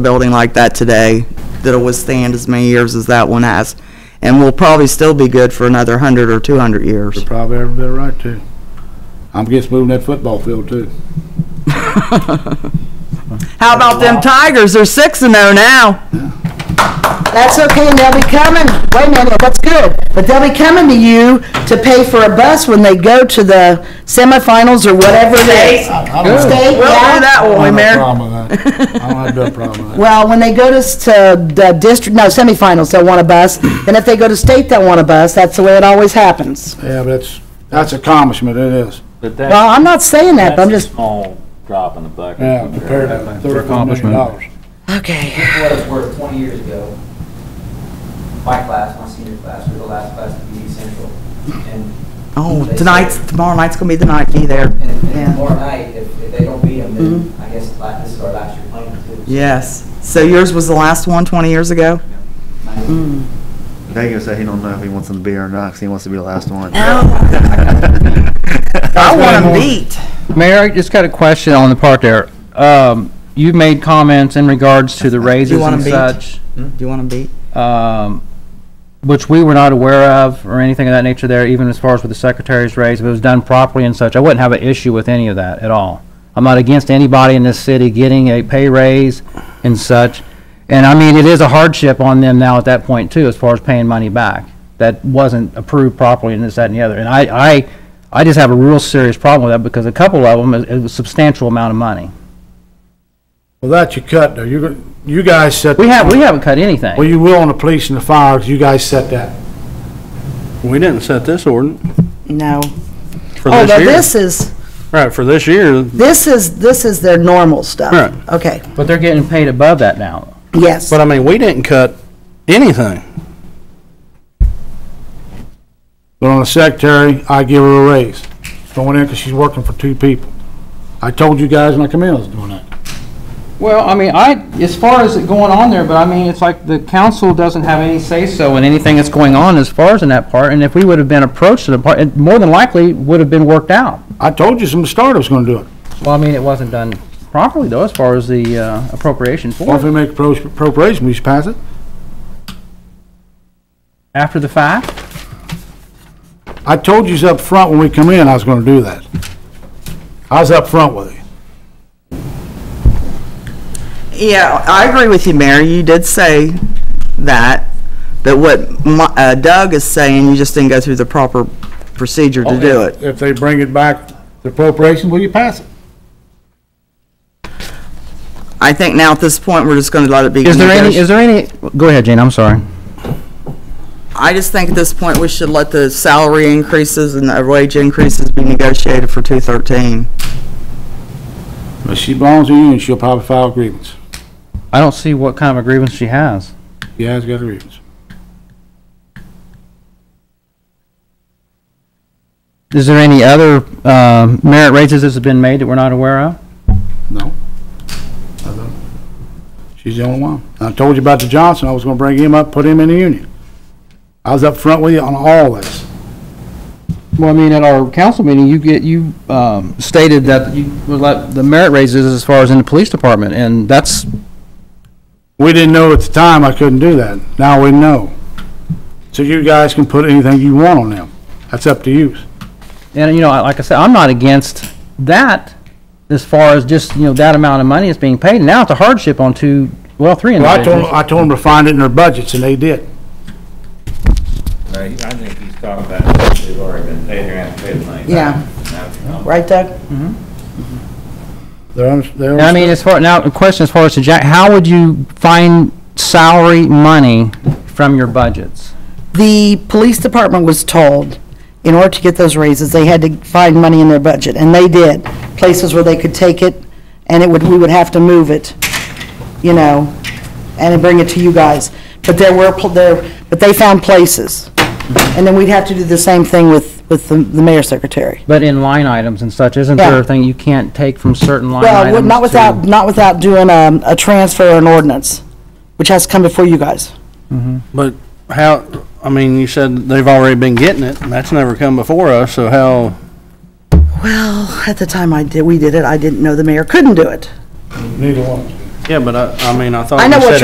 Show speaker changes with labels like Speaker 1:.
Speaker 1: building like that today that'll withstand as many years as that one has. And will probably still be good for another hundred or two hundred years.
Speaker 2: You're probably ever been right to. I'm against moving that football field too.
Speaker 1: How about them Tigers? They're six and oh now.
Speaker 3: That's okay, and they'll be coming, wait a minute, that's good, but they'll be coming to you to pay for a bus when they go to the semifinals or whatever it is.
Speaker 2: I don't have-
Speaker 3: State,
Speaker 1: We'll do
Speaker 3: yeah.
Speaker 1: that, won't
Speaker 2: I
Speaker 1: we,
Speaker 2: don't
Speaker 1: Mayor?
Speaker 2: have a problem with that. I don't have no problem with that.
Speaker 3: Well, when they go to, s- to the district, no, semifinals, they'll want a bus, and if they go to state, they'll want a bus, that's the way it always happens.
Speaker 2: Yeah, but that's, that's accomplishment, it is.
Speaker 4: But that,
Speaker 3: Well, I'm not saying that, but I'm
Speaker 4: that's a
Speaker 3: just,
Speaker 4: small drop in the bucket.
Speaker 2: Yeah, compared to thirty-four million dollars.
Speaker 3: okay,
Speaker 5: what it's worth, 20 years ago, my class, my senior class, we were the last class to be central. And,
Speaker 1: Oh, tonight's, tomorrow night's gonna be the night, be there.
Speaker 5: and-
Speaker 1: Yeah.
Speaker 5: and tomorrow night, if, if they don't beat them, then I guess la- this is our last year playing too.
Speaker 1: Yes. So yours was the last one twenty years ago?
Speaker 3: mm,
Speaker 6: Dago said he don't know if he wants them to be or not, 'cause he wants to be the last one.
Speaker 1: I want them
Speaker 2: Mayor.
Speaker 1: beat.
Speaker 7: Mayor, I just got a question on the part there. Um, you've made comments in regards to the raises
Speaker 1: want 'em
Speaker 7: and
Speaker 1: beat?
Speaker 7: such,
Speaker 1: Do you want them beat?
Speaker 7: um, which we were not aware of or anything of that nature there, even as far as with the secretary's raise, if it was done properly and such, I wouldn't have an issue with any of that at all. I'm not against anybody in this city getting a pay raise and such. And I mean, it is a hardship on them now at that point too, as far as paying money back. That wasn't approved properly and this, that, and the other. And I, I, I just have a real serious problem with that because a couple of them is is a substantial amount of money.
Speaker 2: Well, that you cut though, you, you guys set.
Speaker 7: We have, we haven't cut anything.
Speaker 2: Well, you will on the police and the fire, 'cause you guys set that.
Speaker 8: We didn't set this ordinance
Speaker 3: no.
Speaker 8: for
Speaker 3: Oh,
Speaker 8: this
Speaker 3: but
Speaker 8: year.
Speaker 3: this is,
Speaker 8: Right, for this year,
Speaker 3: this is, this is their normal stuff.
Speaker 8: Right.
Speaker 3: Okay,
Speaker 7: But they're getting paid above that now.
Speaker 3: yes.
Speaker 8: but I mean, we didn't cut anything.
Speaker 2: But on the secretary, I give her a raise. Going in because she's working for two people. I told you guys when I come in, I was doing that.
Speaker 7: Well, I mean, I, as far as it going on there, but I mean, it's like the council doesn't have any say-so in anything that's going on as far as in that part, and if we would have been approached to the part, it more than likely would have been worked out.
Speaker 2: I told you from the start I was gonna do it.
Speaker 7: Well, I mean, it wasn't done properly though, as far as the uh, appropriation
Speaker 2: Well, if
Speaker 7: for
Speaker 2: we
Speaker 7: it.
Speaker 2: make appro- appropriation, we just pass it.
Speaker 7: After the fact,
Speaker 2: I told you up front when we come in, I was gonna do that. I was up front with you.
Speaker 1: Yeah, I agree with you, Mary. You did say that, but what Mi- uh, Doug is saying, you just didn't go through the proper procedure
Speaker 7: Oh,
Speaker 1: to do it.
Speaker 2: If they bring it back, the appropriation, will you pass it?
Speaker 1: I think now at this point, we're just gonna let it be.
Speaker 7: is there any,
Speaker 1: negoti-
Speaker 7: is there any, go ahead, Gene, I'm sorry.
Speaker 1: I just think at this point, we should let the salary increases and the wage increases be negotiated for two thirteen.
Speaker 2: If she belongs to you, and she'll probably file a grievance.
Speaker 7: I don't see what kind of a grievance she has.
Speaker 2: She has got a grievance.
Speaker 7: Is there any other um, merit raises that's been made that we're not aware of?
Speaker 2: No? I don't. She's the only one. I told you about the Johnson, I was gonna bring him up, put him in the union. I was up front with you on all this.
Speaker 7: Well, I mean, at our council meeting, you get, you um, stated that you would let the merit raises as far as in the police department, and that's,
Speaker 2: We didn't know at the time I couldn't do that. Now we know. So you guys can put anything you want on them. That's up to you.
Speaker 7: and, you know, like I said, I'm not against that as far as just, you know, that amount of money that's being paid. Now it's a hardship on two, well, three
Speaker 2: Well, I told,
Speaker 7: individuals.
Speaker 2: I told them to find it in their budgets, and they did.
Speaker 4: I think he's talking about, they've already been paid, they're gonna pay the money.
Speaker 3: Yeah. Right, Doug?
Speaker 2: They're, under- they're.
Speaker 7: And I mean, as far, now, the question as far as to Jack, how would you find salary money from your budgets?
Speaker 3: The police department was told, in order to get those raises, they had to find money in their budget, and they did. Places where they could take it, and it would, we would have to move it, you know, and then bring it to you guys. But there were, pl- there, but they found places. And then we'd have to do the same thing with, with the the mayor's secretary.
Speaker 7: But in line items and such, isn't
Speaker 3: Yeah.
Speaker 7: there a thing you can't take from certain line
Speaker 3: Well,
Speaker 7: items
Speaker 3: would- not
Speaker 7: to-
Speaker 3: without, not without doing um, a transfer or an ordinance, which has to come before you guys.
Speaker 8: But how, I mean, you said they've already been getting it, and that's never come before us, so how,
Speaker 3: Well, at the time I did, we did it, I didn't know the mayor couldn't do it.
Speaker 2: Neither one.
Speaker 3: Yeah, but I, I mean, I thought
Speaker 8: I know
Speaker 3: you
Speaker 8: what
Speaker 3: said